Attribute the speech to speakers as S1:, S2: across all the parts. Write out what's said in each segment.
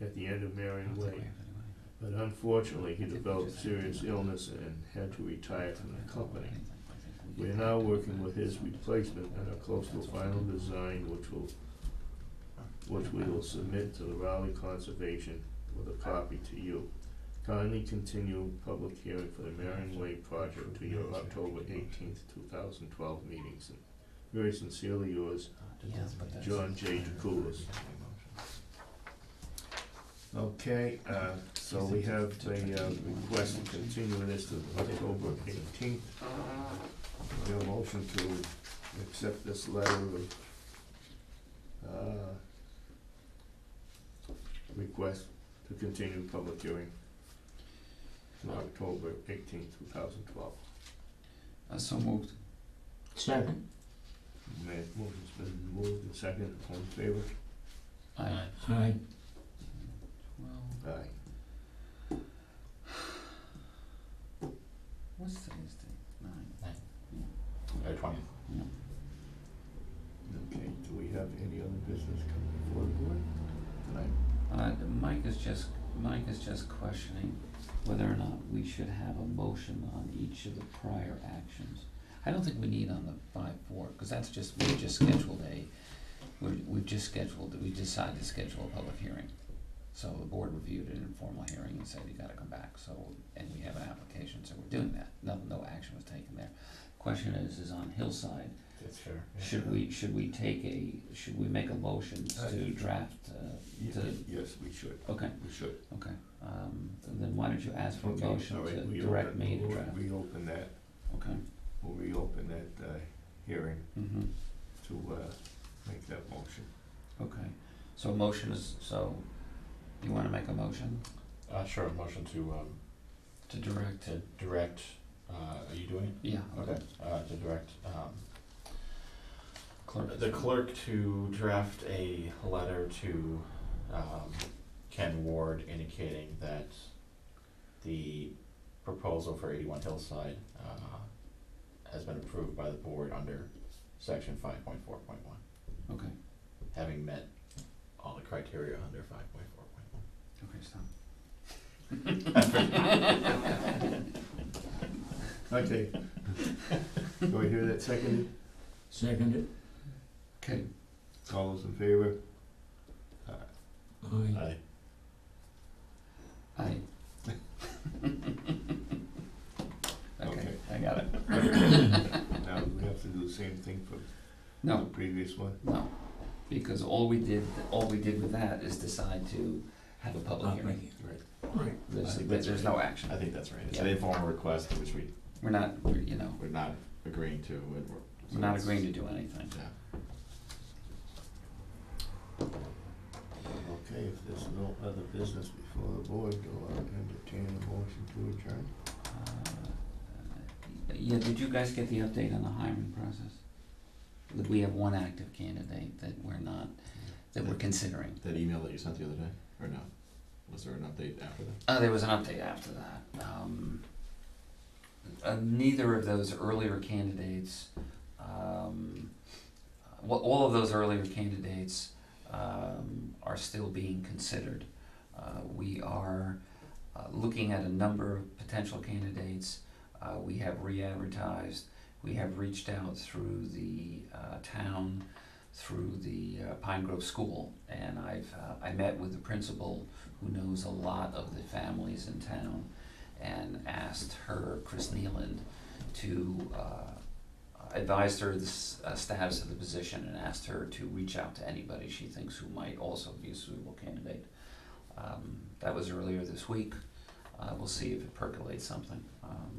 S1: at the end of Marion
S2: don't think we
S1: Way.
S2: have any money.
S1: But unfortunately, he
S2: I think we
S1: developed
S2: just have to
S1: serious
S2: do that.
S1: illness and had to retire from the company.
S2: We
S1: We are now working with his replacement and are close to a final design which will, which we will submit to the Raleigh Conservation with a copy to you. Kindly continue public hearing for the Marion Way project to your October eighteenth, two thousand twelve meetings. Very sincerely yours,
S2: Yes, but that's-
S1: John J. DeCoulis. Okay, uh, so we have a uh, request to continue this to October eighteenth. Your motion to accept this letter of, uh, request to continue public hearing to October eighteenth, two thousand twelve.
S2: Uh, so moved.
S3: Second.
S1: Motion's been moved and seconded, all in favor?
S2: Aye.
S3: Aye.
S2: Twelve.
S1: Aye.
S2: What's today's date? Nine.
S4: twenty.
S1: Okay, do we have any other business coming before the board tonight?
S2: Uh, Mike is just, Mike is just questioning whether or not we should have a motion on each of the prior actions. I don't think we need on the five four, cause that's just, we just scheduled a, we, we've just scheduled, we decided to schedule a public hearing. So the board reviewed an informal hearing and said, you gotta come back, so, and we have an application, so we're doing that, no, no action was taken there. Question is, is on Hillside,
S4: That's fair.
S2: should we, should we take a, should we make a motion to draft,
S1: Ye-
S2: uh, to,
S1: Yes, we should,
S2: okay.
S1: we should.
S2: Okay, um, then why don't you ask for a
S1: Okay,
S2: motion
S1: all right,
S2: to
S1: we
S2: direct
S1: open-
S2: me to
S1: we'll
S2: draft?
S1: Reopen that,
S2: Okay,
S1: we'll reopen that, uh, hearing
S2: mm-hmm,
S1: to, uh, make that motion.
S2: okay. So a motion is, so, you wanna make a motion
S4: Uh, sure, motion to, um,
S2: to direct?
S4: to direct, uh, are you doing
S2: Yeah,
S4: it?
S2: okay.
S4: Uh, to direct, um,
S2: Clerk.
S4: the clerk to draft a letter to, um, Ken Ward indicating that the proposal for eighty-one Hillside, uh, has been approved by the board under section five point four point one,
S2: Okay,
S4: having met all the criteria under five point four point one.
S2: okay, stop.
S1: Okay. Do I hear that seconded?
S3: Seconded.
S2: Okay,
S1: All those in favor?
S3: Aye.
S2: Uh,
S4: Aye.
S2: aye. Okay,
S1: Okay.
S2: I got it.
S1: Now, do we have to do the same thing for the
S2: No,
S1: previous one?
S2: no, because all we did, all we did with that is decide to have a public hearing.
S4: Right.
S3: Right.
S2: There's,
S4: Uh, I think that's
S2: there's
S4: right.
S2: no action.
S4: I think that's right, it's
S2: Yeah.
S4: an informal request, which we
S2: We're not, we're, you know,
S4: We're not agreeing to, and we're.
S2: we're not agreeing to do anything.
S4: Yeah.
S1: Okay, if there's no other business before the board, do I entertain a motion to adjourn?
S2: Uh, Yeah, did you guys get the update on the hiring process? That we have one active candidate that we're not, that we're considering.
S4: That email that you sent the other day, or no? Was there an update after that?
S2: Uh, there was an update after that. Um, uh, neither of those earlier candidates, um, well, all of those earlier candidates um, are still being considered. Uh, we are uh, looking at a number of potential candidates. Uh, we have re-advertised. We have reached out through the uh, town, through the uh, Pine Grove School, and I've uh, I met with the principal who knows a lot of the families in town, and asked her, Chris Nealand, to uh, advise her the s- uh, status of the position and asked her to reach out to anybody she thinks who might also be a suitable candidate. Um, that was earlier this week. Uh, we'll see if it percolates something. Um,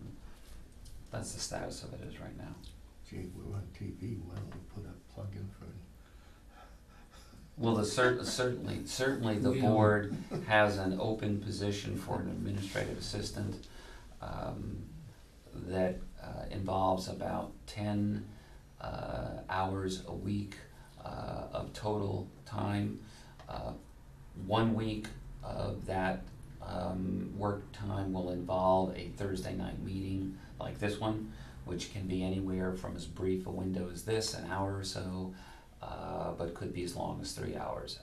S2: that's the status of it is right now.
S1: Gee, we're on TV, why don't we put a plug in for
S2: Well, the cer- certainly, certainly the
S3: Yeah.
S2: board has an open position for an administrative assistant, um, that, uh, involves about ten, uh, hours a week, uh, of total time. Uh, one week of that, um, work time will involve a Thursday night meeting like this one, which can be anywhere from as brief a window as this, an hour or so, uh, but could be as long as three hours.